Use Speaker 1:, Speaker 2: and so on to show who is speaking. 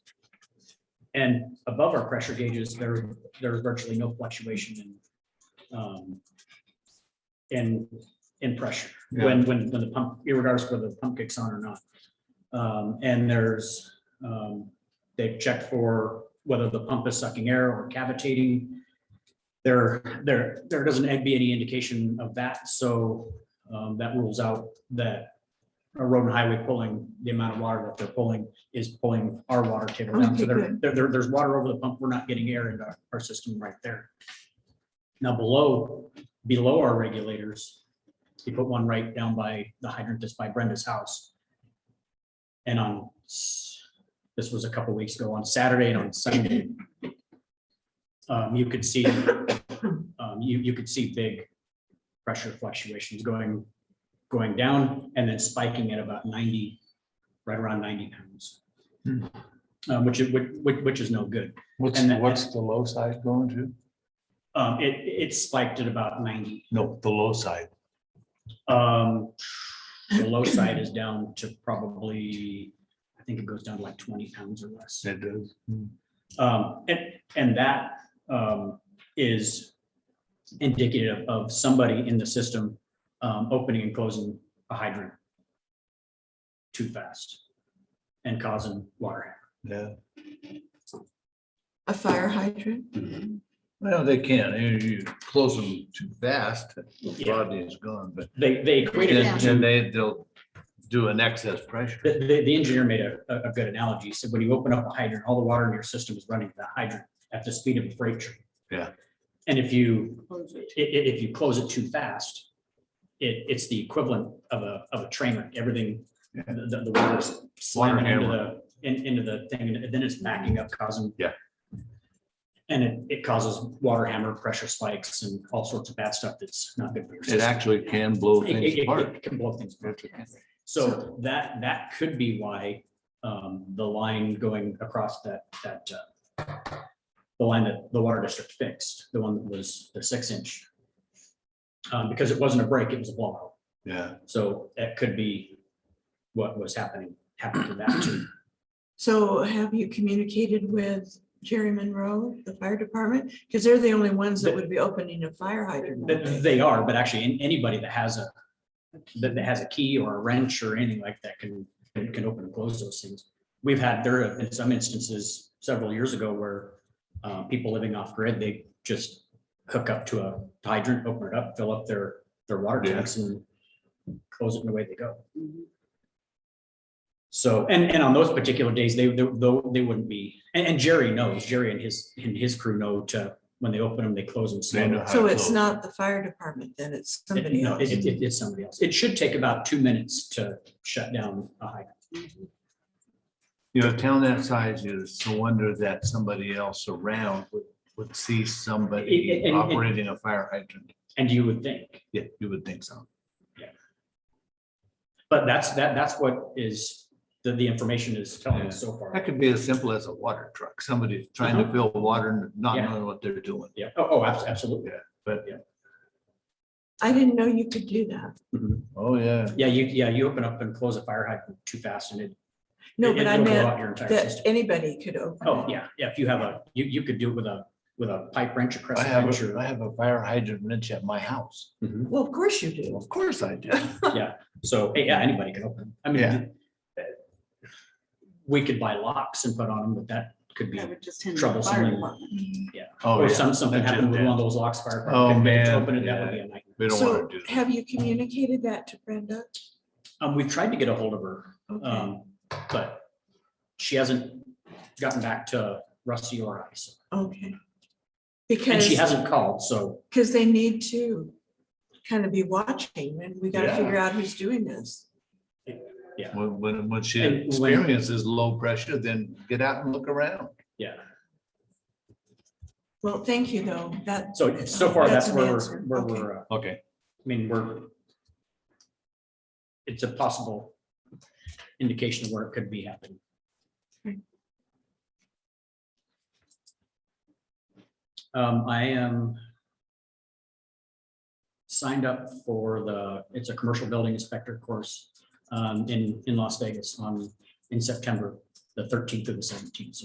Speaker 1: And above our pressure gauges, there, there's virtually no fluctuation in, um, in, in pressure, when, when, when the pump, irregardless whether the pump kicks on or not. Um, and there's, um, they've checked for whether the pump is sucking air or cavitating. There, there, there doesn't be any indication of that, so, um, that rules out that a road and highway pulling, the amount of water that they're pulling is pulling our water table down. So
Speaker 2: Okay,
Speaker 1: there,
Speaker 2: good.
Speaker 1: there, there- there's water over the pump. We're not getting air into our- our system right there. Now below, below our regulators, we put one right down by the hydrant that's by Brenda's house. And on, s- this was a couple weeks ago, on Saturday and on Sunday, um, you could see, um, you, you could see big pressure fluctuations going going down and then spiking at about ninety, right around ninety pounds.
Speaker 3: Hmm.
Speaker 1: Um, which is, which, which- which is no good.
Speaker 3: What's,
Speaker 1: And that-
Speaker 3: what's the low side going to?
Speaker 1: Um, it, it spiked at about ninety.
Speaker 3: No, the low side.
Speaker 1: Um, the low side is down to probably, I think it goes down to like twenty pounds or less.
Speaker 3: It does.
Speaker 1: Um, and, and that, um, is indicative of somebody in the system, um, opening and closing a hydrant too fast and causing water havoc.
Speaker 3: Yeah.
Speaker 2: A fire hydrant?
Speaker 3: Mm-hmm. Well, they can. You, you close them too fast,
Speaker 1: Yeah.
Speaker 3: Rodney is gone, but
Speaker 1: They, they equated it
Speaker 3: then
Speaker 1: to,
Speaker 3: then they, they'll do an excess pressure.
Speaker 1: the, the, the engineer made a, a a good analogy. He said, when you open up a hydrant, all the water in your system is running to the hydrant at the speed of a freight train.
Speaker 3: Yeah.
Speaker 1: And if you, i- i- if you close it too fast, it, it's the equivalent of a, of a train, wreck. everything,
Speaker 3: Yeah.
Speaker 1: the, the- the water's slamming
Speaker 3: Water
Speaker 1: into the, in- into the thing, and then it's backing up causing.
Speaker 3: Yeah.
Speaker 1: And it, it causes water hammer, pressure spikes, and all sorts of bad stuff that's not good for your
Speaker 3: It
Speaker 1: system.
Speaker 3: actually can blow
Speaker 1: It-
Speaker 3: things
Speaker 1: it- it
Speaker 3: apart.
Speaker 1: Can blow things apart.
Speaker 2: Yes.
Speaker 1: So that, that could be why um, the line going across that, that, uh, the line that the water district fixed, the one that was the six inch. um, Because it wasn't a break, it was a blowout.
Speaker 3: Yeah,
Speaker 1: So that could be what was happening, happened to that too.
Speaker 2: So have you communicated with Jerry Monroe, the fire department? Because they're the only ones that would be opening a fire hydrant.
Speaker 1: Th-
Speaker 2: aren't
Speaker 1: th-
Speaker 2: they?
Speaker 1: They are, but actually an- anybody that has a, that that has a key or a wrench or anything like that can, can can open and close those things. We've had, there have been some instances several years ago where uh, people living off grid, they just hook up to a hydrant, open it up, fill up their, their water
Speaker 3: Yeah.
Speaker 1: tanks and close it and away they go. So, and, and on those particular days, they, they, though, they wouldn't be, and, and Jerry knows, Jerry and his, and his crew know to, when they open them, they close them slow.
Speaker 3: They know how
Speaker 2: So it's
Speaker 3: Absolutely.
Speaker 2: not the fire department, then it's
Speaker 1: It-
Speaker 2: somebody
Speaker 1: No,
Speaker 2: else.
Speaker 1: it, it- it's somebody else. It should take about two minutes to shut down a hydrant.
Speaker 3: you know, a town that size, it's no wonder that somebody else around would, would see
Speaker 1: It- it-
Speaker 3: somebody
Speaker 1: and-
Speaker 3: operating a fire hydrant.
Speaker 1: And you would think,
Speaker 3: Yeah, you would think so.
Speaker 1: but that's, that, that's what is, the, the information is telling us so
Speaker 3: That
Speaker 1: far.
Speaker 3: could be as simple as a water truck, somebody trying to fill water and not
Speaker 1: Mhm. Yeah.
Speaker 3: knowing what they're doing.
Speaker 1: Yeah, oh, oh, abs- absolutely.
Speaker 2: I didn't know you could do that.
Speaker 1: Mhm.
Speaker 3: Oh, yeah.
Speaker 1: Yeah, you, yeah, you open up and close a fire hydrant too fast and it.
Speaker 2: No,
Speaker 1: it-
Speaker 2: but I
Speaker 1: it'll blow
Speaker 2: meant
Speaker 1: out your entire
Speaker 2: that
Speaker 1: system.
Speaker 2: anybody could open.
Speaker 1: Oh,
Speaker 2: it.
Speaker 1: yeah, yeah, if you have a, you, you could do it with a, with a pipe wrench, a
Speaker 3: I
Speaker 1: crescent wrench
Speaker 3: have, a- mm-hmm.
Speaker 1: or.
Speaker 3: I have a fire hydrant wrench at my house.
Speaker 1: Mhm.
Speaker 2: Well, of course you do.
Speaker 3: Of course I do.
Speaker 1: So, yeah, anybody can open. I
Speaker 3: Yeah.
Speaker 1: mean, we could buy locks and put on them, but that could be
Speaker 4: That would just hinder the
Speaker 1: troublesome.
Speaker 4: fire
Speaker 1: and-
Speaker 4: department.
Speaker 3: Oh,
Speaker 1: Or
Speaker 3: yeah.
Speaker 1: some, something
Speaker 3: That's
Speaker 1: happened with
Speaker 3: it,
Speaker 1: one of those locks fire.
Speaker 3: Oh,
Speaker 1: couldn't get it to
Speaker 3: man,
Speaker 1: Open it, that would
Speaker 3: yeah.
Speaker 1: be a nightmare.
Speaker 3: We don't
Speaker 2: So
Speaker 3: want to do that.
Speaker 2: have you communicated that to Brenda?
Speaker 1: Um, we've tried to get a hold of her,
Speaker 2: Okay.
Speaker 1: um, but she hasn't gotten back to Rusty or I. so-
Speaker 2: Okay.
Speaker 1: And
Speaker 2: Because,
Speaker 1: she hasn't called, so,
Speaker 2: because they need to kind of be watching and we got to
Speaker 3: Yeah.
Speaker 2: figure out who's doing this.
Speaker 3: When, when, when she
Speaker 1: And when-
Speaker 3: experiences low pressure, then get out and look around.
Speaker 1: yeah.
Speaker 2: Well, thank you though. That,
Speaker 1: So, so far,
Speaker 2: That's
Speaker 1: that's
Speaker 2: an
Speaker 1: where we're,
Speaker 2: answer.
Speaker 1: where
Speaker 2: Okay.
Speaker 1: we're, uh, I
Speaker 3: Okay.
Speaker 1: mean, we're, it's a possible indication of where it could be happening. Um, I am signed up for the, it's a commercial building inspector course um, in, in Las Vegas on, in September, the thirteenth through the seventeenth.